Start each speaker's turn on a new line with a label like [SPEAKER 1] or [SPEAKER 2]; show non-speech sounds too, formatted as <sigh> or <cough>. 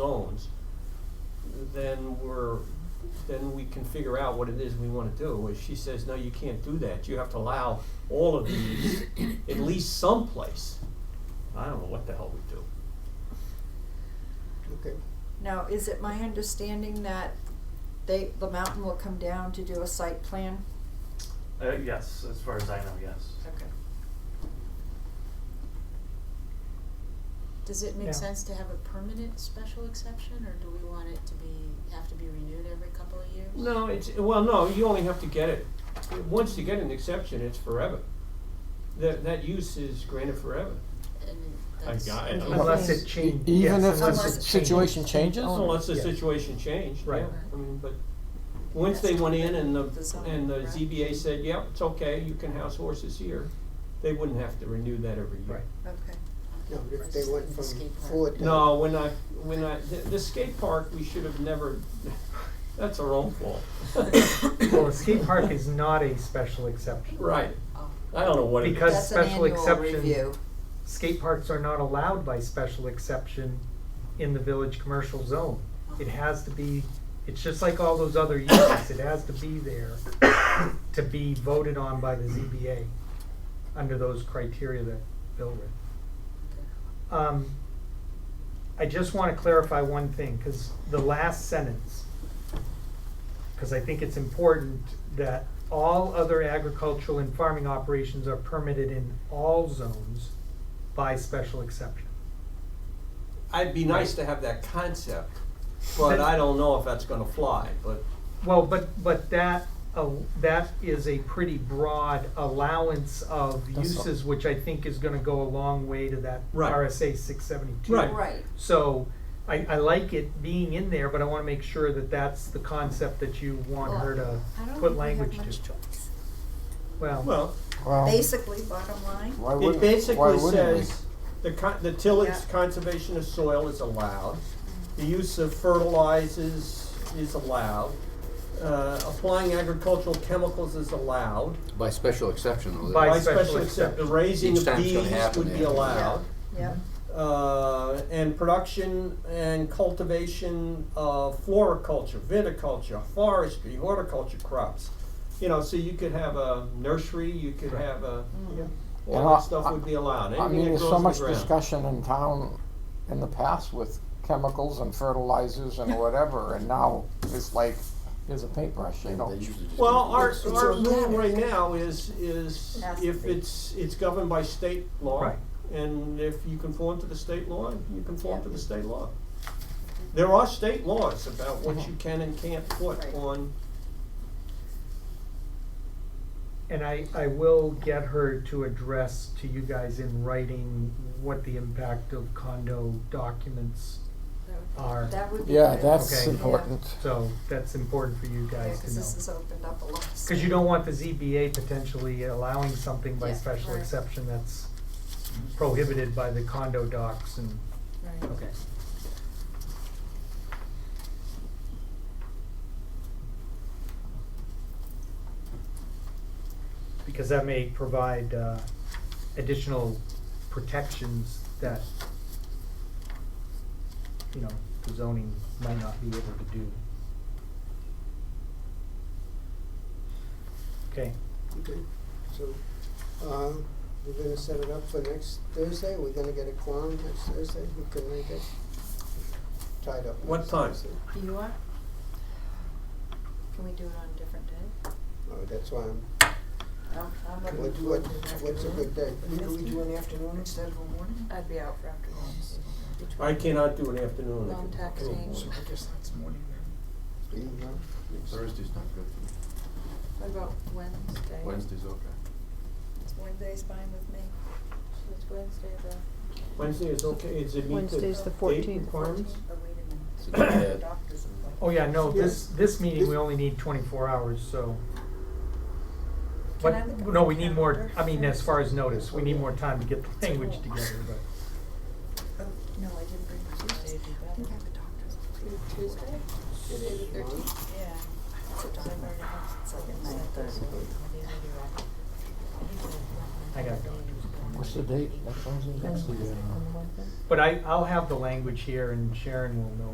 [SPEAKER 1] zones, then we're, then we can figure out what it is we wanna do. If she says, no, you can't do that, you have to allow all of these at least someplace, I don't know what the hell we do.
[SPEAKER 2] Okay,
[SPEAKER 3] Now, is it my understanding that they, the mountain will come down to do a site plan?
[SPEAKER 4] Uh, yes, as far as I know, yes.
[SPEAKER 3] Okay.
[SPEAKER 5] Does it
[SPEAKER 2] Yeah.
[SPEAKER 5] make sense to have a permanent special exception, or do we want it to be, have to be renewed every couple of years?
[SPEAKER 1] No, it's, well, no, you only have to get it, once you get an exception, it's forever. That, that use is granted forever.
[SPEAKER 5] I mean,
[SPEAKER 1] I
[SPEAKER 5] that's.
[SPEAKER 1] got it.
[SPEAKER 2] unless it
[SPEAKER 6] E-
[SPEAKER 2] changes.
[SPEAKER 6] Even if the
[SPEAKER 3] unless it
[SPEAKER 6] s- situation changes?
[SPEAKER 1] Unless the
[SPEAKER 2] Yeah.
[SPEAKER 1] situation changed, yeah,
[SPEAKER 2] Right.
[SPEAKER 1] I mean, but, once they went in and the,
[SPEAKER 3] The zoning,
[SPEAKER 1] and the
[SPEAKER 3] right.
[SPEAKER 1] ZBA said, yep, it's okay, you can house horses here, they wouldn't have to renew that every year.
[SPEAKER 2] Right.
[SPEAKER 3] Okay.
[SPEAKER 2] No, but if they went from
[SPEAKER 5] Escape plan.
[SPEAKER 2] four to.
[SPEAKER 1] No, when I, when I, the, the skate park, we should have never, <laughs> that's our own fault.
[SPEAKER 7] Well, a skate park is not a special exception.
[SPEAKER 1] Right,
[SPEAKER 5] Oh,
[SPEAKER 1] I don't know what it is.
[SPEAKER 7] Because-
[SPEAKER 3] That's an
[SPEAKER 7] special
[SPEAKER 3] annual
[SPEAKER 7] exception.
[SPEAKER 3] review.
[SPEAKER 7] Skate parks are not allowed by special exception in the village commercial zone. It has to be, it's just like all those other uses, it has to be there to be voted on by the ZBA under those criteria that Bill read. Um, I just wanna clarify one thing, cause the last sentence, cause I think it's important that all other agricultural and farming operations are permitted in all zones by special exception.
[SPEAKER 1] I'd be nice to have that concept, but I don't know if that's gonna fly, but,
[SPEAKER 7] Well, but, but that, uh, that is a pretty broad allowance of
[SPEAKER 6] That's all.
[SPEAKER 7] uses, which I think is gonna go a long way to that
[SPEAKER 1] Right.
[SPEAKER 7] RSA six seventy-two.
[SPEAKER 1] Right.
[SPEAKER 3] Right,
[SPEAKER 7] So I, I like it being in there, but I wanna make sure that that's the concept that you want her to
[SPEAKER 3] I don't
[SPEAKER 7] put
[SPEAKER 3] think we have
[SPEAKER 7] language to.
[SPEAKER 3] much choice.
[SPEAKER 7] Well,
[SPEAKER 1] well,
[SPEAKER 6] Well,
[SPEAKER 3] Basically, bottom line,
[SPEAKER 6] why
[SPEAKER 1] it
[SPEAKER 6] wouldn't, why
[SPEAKER 1] basically
[SPEAKER 6] wouldn't we?
[SPEAKER 1] says, the con- the tillage
[SPEAKER 3] Yeah.
[SPEAKER 1] conservation of soil is allowed, the use of fertilizers is allowed, uh, applying agricultural chemicals is allowed,
[SPEAKER 8] By special exception, though.
[SPEAKER 7] By
[SPEAKER 1] by
[SPEAKER 8] that-
[SPEAKER 1] special
[SPEAKER 7] special
[SPEAKER 1] except, the
[SPEAKER 7] exception.
[SPEAKER 1] raising
[SPEAKER 8] Each
[SPEAKER 1] of
[SPEAKER 8] time it's gonna
[SPEAKER 1] bees
[SPEAKER 8] happen,
[SPEAKER 1] would be allowed.
[SPEAKER 8] yeah. Yeah.
[SPEAKER 3] yeah,
[SPEAKER 7] mhm.
[SPEAKER 1] uh, and production and cultivation of floriculture, viticulture, forestry, horticulture crops. You know, so you could have a nursery, you could have a,
[SPEAKER 3] Mm-hmm.
[SPEAKER 6] And
[SPEAKER 1] all
[SPEAKER 6] I-
[SPEAKER 1] that stuff would be allowed,
[SPEAKER 6] I
[SPEAKER 1] anything
[SPEAKER 6] mean,
[SPEAKER 1] that
[SPEAKER 6] there's so much
[SPEAKER 1] grows in the ground.
[SPEAKER 6] discussion in town in the past with chemicals and fertilizers and whatever, and now it's like, here's a paintbrush, you know.
[SPEAKER 8] They usually just
[SPEAKER 1] Well,
[SPEAKER 8] do
[SPEAKER 1] our,
[SPEAKER 8] this.
[SPEAKER 1] our rule
[SPEAKER 3] organic.
[SPEAKER 1] right now is, is
[SPEAKER 3] Has to
[SPEAKER 1] if
[SPEAKER 3] be.
[SPEAKER 1] it's, it's governed by state law.
[SPEAKER 7] Right.
[SPEAKER 1] And if you conform to the state law, you conform to the state law. There are state laws about what
[SPEAKER 6] Mm-hmm.
[SPEAKER 1] you can and can't put
[SPEAKER 3] Right.
[SPEAKER 1] on
[SPEAKER 7] and I, I will get her to address to you guys in writing what the impact of condo documents are.
[SPEAKER 3] that would be good.
[SPEAKER 6] Yeah, that's
[SPEAKER 7] Okay.
[SPEAKER 6] important.
[SPEAKER 7] So that's important for you
[SPEAKER 3] Yeah,
[SPEAKER 7] guys to
[SPEAKER 3] cause
[SPEAKER 7] know.
[SPEAKER 3] this has opened up a lot. of
[SPEAKER 7] Cause you
[SPEAKER 3] stuff.
[SPEAKER 7] don't want the ZBA potentially allowing something by
[SPEAKER 3] Yeah,
[SPEAKER 7] special
[SPEAKER 3] right.
[SPEAKER 7] exception that's prohibited by the condo docs and,
[SPEAKER 3] Right.
[SPEAKER 7] okay. Because that may provide, uh, additional protections that, you know, the zoning might not be able to do. Okay.
[SPEAKER 2] Okay, so, uh, we're gonna set it up for next Thursday, we're gonna get a quorum next Thursday, we can make it tied up.
[SPEAKER 1] What
[SPEAKER 2] next
[SPEAKER 1] time?
[SPEAKER 2] Thursday.
[SPEAKER 3] You are? Can we do it on a different day?
[SPEAKER 2] Oh, that's why I'm,
[SPEAKER 3] I'm, I'm looking
[SPEAKER 2] what, what,
[SPEAKER 3] forward to the
[SPEAKER 2] what's a
[SPEAKER 3] afternoon.
[SPEAKER 2] good day?
[SPEAKER 9] Can we do an afternoon instead of a morning?
[SPEAKER 3] I'd be out for afternoons.
[SPEAKER 1] I cannot do an afternoon.
[SPEAKER 5] Long taxing.
[SPEAKER 9] So I guess that's morning then.
[SPEAKER 2] Do you know?
[SPEAKER 8] Thursday's not good for me.
[SPEAKER 5] What about Wednesday?
[SPEAKER 8] Wednesday's okay.
[SPEAKER 3] Wednesday's fine with me.
[SPEAKER 5] It's Wednesday, the.
[SPEAKER 1] Wednesday is okay, is it meet the
[SPEAKER 10] Wednesday's the
[SPEAKER 1] date
[SPEAKER 10] 14th.
[SPEAKER 1] requirements?
[SPEAKER 3] Oh, wait a minute.
[SPEAKER 8] It's
[SPEAKER 7] <coughs>
[SPEAKER 8] not bad.
[SPEAKER 3] Doctor's appointment.
[SPEAKER 7] Oh, yeah, no, this,
[SPEAKER 2] Yeah.
[SPEAKER 7] this meeting, we only need twenty-four hours, so. But,
[SPEAKER 3] I look at
[SPEAKER 7] no,
[SPEAKER 3] my
[SPEAKER 7] we need more,
[SPEAKER 3] calendar?
[SPEAKER 7] I mean, as far as notice, we need more time to get the language together, but,
[SPEAKER 3] Oh, no, I didn't bring my Tuesday. I think I have a doctor's appointment. Tuesday? Yeah. It's a doctor. It's like at night.
[SPEAKER 7] I got a doctor's appointment.
[SPEAKER 6] What's the date? Next Wednesday?
[SPEAKER 7] But I, I'll have the language here and Sharon will know